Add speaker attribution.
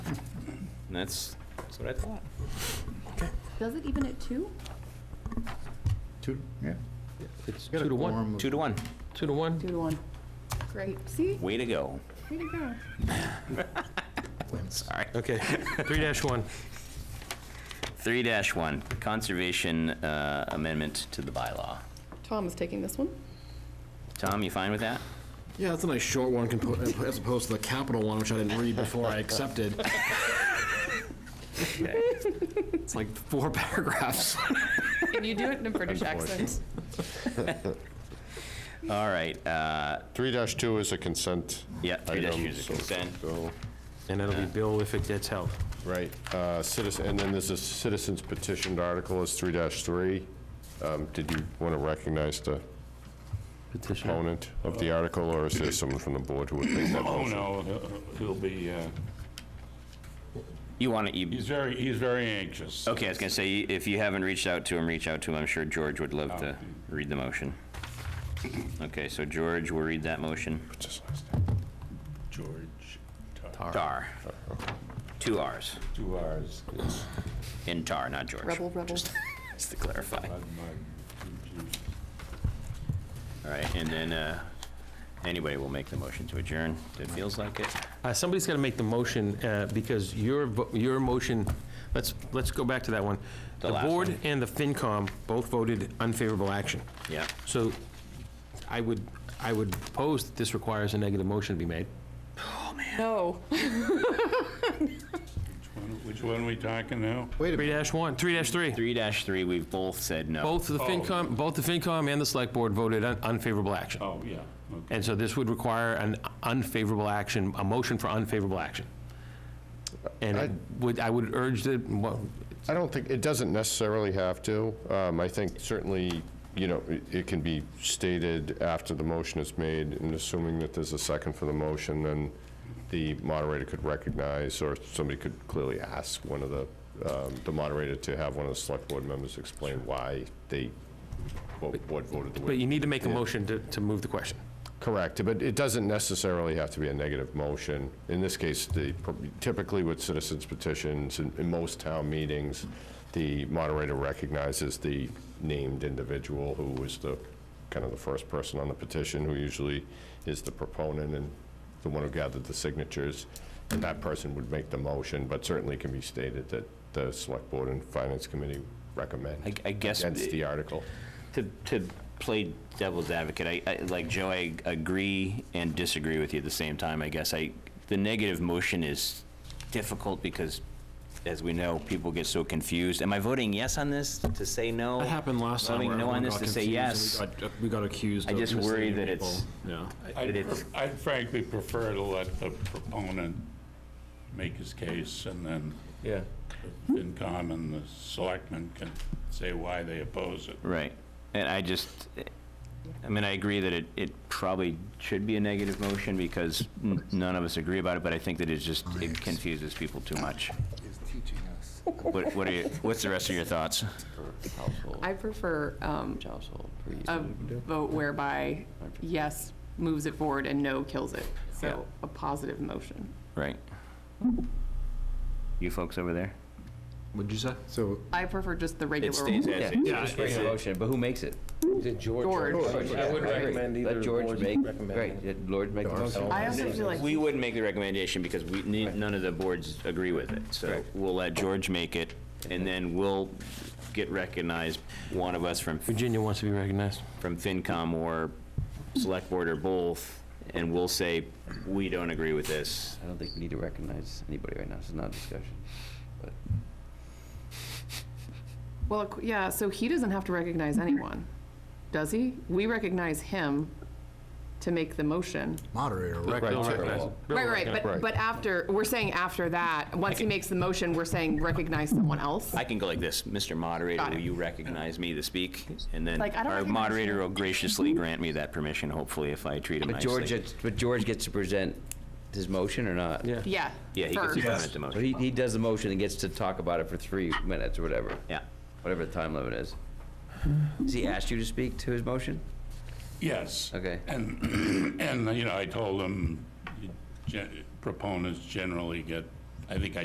Speaker 1: And that's, that's what I thought.
Speaker 2: Does it even at two?
Speaker 3: Two, yeah.
Speaker 4: It's
Speaker 3: Got a
Speaker 4: two to one,
Speaker 3: quorum of-
Speaker 1: Two to one.
Speaker 4: two to one.
Speaker 2: Two to one. Great. See?
Speaker 1: Way to go.
Speaker 2: Way to go.
Speaker 1: Sorry.
Speaker 4: Okay, three dash one.
Speaker 1: Three dash one, conservation uh, amendment to the bylaw.
Speaker 2: Tom is taking this one.
Speaker 1: Tom, you fine with that?
Speaker 3: Yeah, that's a nice short one compo- as opposed to the capital one, which I didn't read before I accepted. It's like four paragraphs.
Speaker 2: Can you do it in a British accent?
Speaker 1: All right, uh,
Speaker 5: Three dash two is a consent.
Speaker 1: Yeah, 3-2
Speaker 5: item,
Speaker 1: is a
Speaker 5: so
Speaker 1: consent.
Speaker 5: go-
Speaker 4: And that'll be Bill if it gets held.
Speaker 5: Right, uh, citizen, and then there's a citizens petitioned article is three dash three. Um, Did you want to recognize the
Speaker 4: Petition.
Speaker 5: proponent of the article, or is there someone from the board who would make that
Speaker 6: Oh,
Speaker 5: motion?
Speaker 6: no, he'll- he'll be, uh,
Speaker 1: you want to, you,
Speaker 6: he's very, he's very anxious.
Speaker 1: okay, I was gonna say, if you haven't reached out to him, reach out to him. I'm sure George would love to read the motion. Okay, so George will read that motion.
Speaker 5: Just last name.
Speaker 6: George, Tar-
Speaker 1: Tar. Two Rs.
Speaker 6: two hours.
Speaker 1: In tar, not George.
Speaker 2: Rebel, rebel.
Speaker 1: Just to clarify.
Speaker 6: I'm, I'm confused.
Speaker 1: All right, and then, uh, anybody will make the motion to adjourn. It feels like it.
Speaker 4: Uh, Somebody's got to make the motion uh, because your, vo- your motion, let's, let's go back to that one.
Speaker 1: The
Speaker 4: The
Speaker 1: last
Speaker 4: board
Speaker 1: one.
Speaker 4: and the FinCom both voted unfavorable action.
Speaker 1: Yeah.
Speaker 4: So I would, I would propose that this requires a negative motion to be made.
Speaker 2: No.
Speaker 6: Which one- Which one are we talking now?
Speaker 3: Wait a
Speaker 4: Three
Speaker 3: minute,
Speaker 4: dash one, three dash three. Oh.
Speaker 1: Three dash three, we've both said no.
Speaker 4: Both the FinCom, both the FinCom and the Select Board voted un- unfavorable action.
Speaker 6: Oh, yeah, okay.
Speaker 4: And so this would require an unfavorable action, a motion for unfavorable action. And it would, I would urge that, well,
Speaker 5: I don't think, it doesn't necessarily have to. Um, I think certainly, you know, it- it can be stated after the motion is made, and assuming that there's a second for the motion, then the moderator could recognize, or somebody could clearly ask one of the, um, the moderator to have one of the select board members explain why they, what what voted the
Speaker 4: but
Speaker 5: way.
Speaker 4: you need to make a motion to, to move the question.
Speaker 5: Correct, but it doesn't necessarily have to be a negative motion. In this case, the, typically with citizens petitions, in, in most town meetings, the moderator recognizes the named individual who was the, kind of the first person on the petition, who usually is the proponent and the one who gathered the signatures, and that person would make the motion, but certainly can be stated that the select board and finance committee
Speaker 1: I,
Speaker 5: recommend
Speaker 1: I guess,
Speaker 5: against
Speaker 1: to,
Speaker 5: the article.
Speaker 1: to play devil's advocate, I, I, like Joe, I agree and disagree with you at the same time, I guess. I, the negative motion is difficult because, as we know, people get so confused. Am I voting yes on this to say no?
Speaker 3: that happened last time.
Speaker 1: Voting
Speaker 3: where
Speaker 1: no on
Speaker 3: everyone
Speaker 1: this
Speaker 3: got
Speaker 1: to say
Speaker 3: confused
Speaker 1: yes.
Speaker 3: and we got- uh, We got accused
Speaker 1: I
Speaker 3: of
Speaker 1: just worry
Speaker 3: misleading
Speaker 1: that
Speaker 3: people.
Speaker 1: it's-
Speaker 3: Yeah.
Speaker 1: But
Speaker 6: I'd
Speaker 1: it's-
Speaker 6: pref- I'd frankly prefer to let the proponent make his case, and then
Speaker 4: Yeah.
Speaker 6: FinCom and the selectmen can say why they oppose it.
Speaker 1: Right. And I just, I mean, I agree that it, it probably should be a negative motion because n- none of us agree about it, but I think that it's just, it confuses people too much. What, what are you, what's the rest of your thoughts?
Speaker 2: I prefer um, a vote whereby yes moves it forward and no kills it.
Speaker 1: Yeah.
Speaker 2: So a positive motion.
Speaker 1: Right. You folks over there?
Speaker 4: What'd you say?
Speaker 3: So
Speaker 2: I prefer just the regular.
Speaker 1: as
Speaker 7: Yeah, it's just a motion, but who makes it?
Speaker 2: George.
Speaker 7: I would
Speaker 4: recommend either
Speaker 7: Let
Speaker 4: the
Speaker 7: George
Speaker 4: boards
Speaker 7: make, right, let George make the motion.
Speaker 2: I also feel like
Speaker 1: We wouldn't make the recommendation because we, ne- none of the boards agree with it. So we'll let George make it and then we'll get recognized, one of us from
Speaker 4: Virginia wants to be recognized.
Speaker 1: from FinCom or Select Board or both, and we'll say, we don't agree with this.
Speaker 7: I don't think we need to recognize anybody right now, this is not a discussion. But
Speaker 2: Well, ac- yeah, so he doesn't have to recognize anyone, does he? We recognize him to make the motion.
Speaker 3: moderator, right?
Speaker 4: Bill
Speaker 5: so-
Speaker 4: recognized. Bill
Speaker 2: Right, right,
Speaker 4: recognized.
Speaker 2: but, but after, we're saying after that, once he makes the motion, we're saying recognize someone else?
Speaker 1: I can go like this, Mr. Moderator,
Speaker 2: Got it.
Speaker 1: will you recognize me to speak? And then
Speaker 2: Like, I don't
Speaker 1: our
Speaker 2: recognize
Speaker 1: moderator
Speaker 2: you.
Speaker 1: will graciously grant me that permission, hopefully, if I treat him
Speaker 7: but George,
Speaker 1: nicely.
Speaker 7: gets- but George gets to present his motion or not?
Speaker 4: Yeah.
Speaker 2: Yeah.
Speaker 1: Yeah, he gets
Speaker 2: first.
Speaker 1: to comment the
Speaker 7: So
Speaker 1: most.
Speaker 7: he, he does the motion and gets to talk about it for three minutes or whatever,
Speaker 1: Yeah.
Speaker 7: whatever the time limit is. Has he asked you to speak to his motion?
Speaker 6: Yes.
Speaker 7: Okay.
Speaker 6: And, and, you know, I told him, gen- proponents generally get, I think I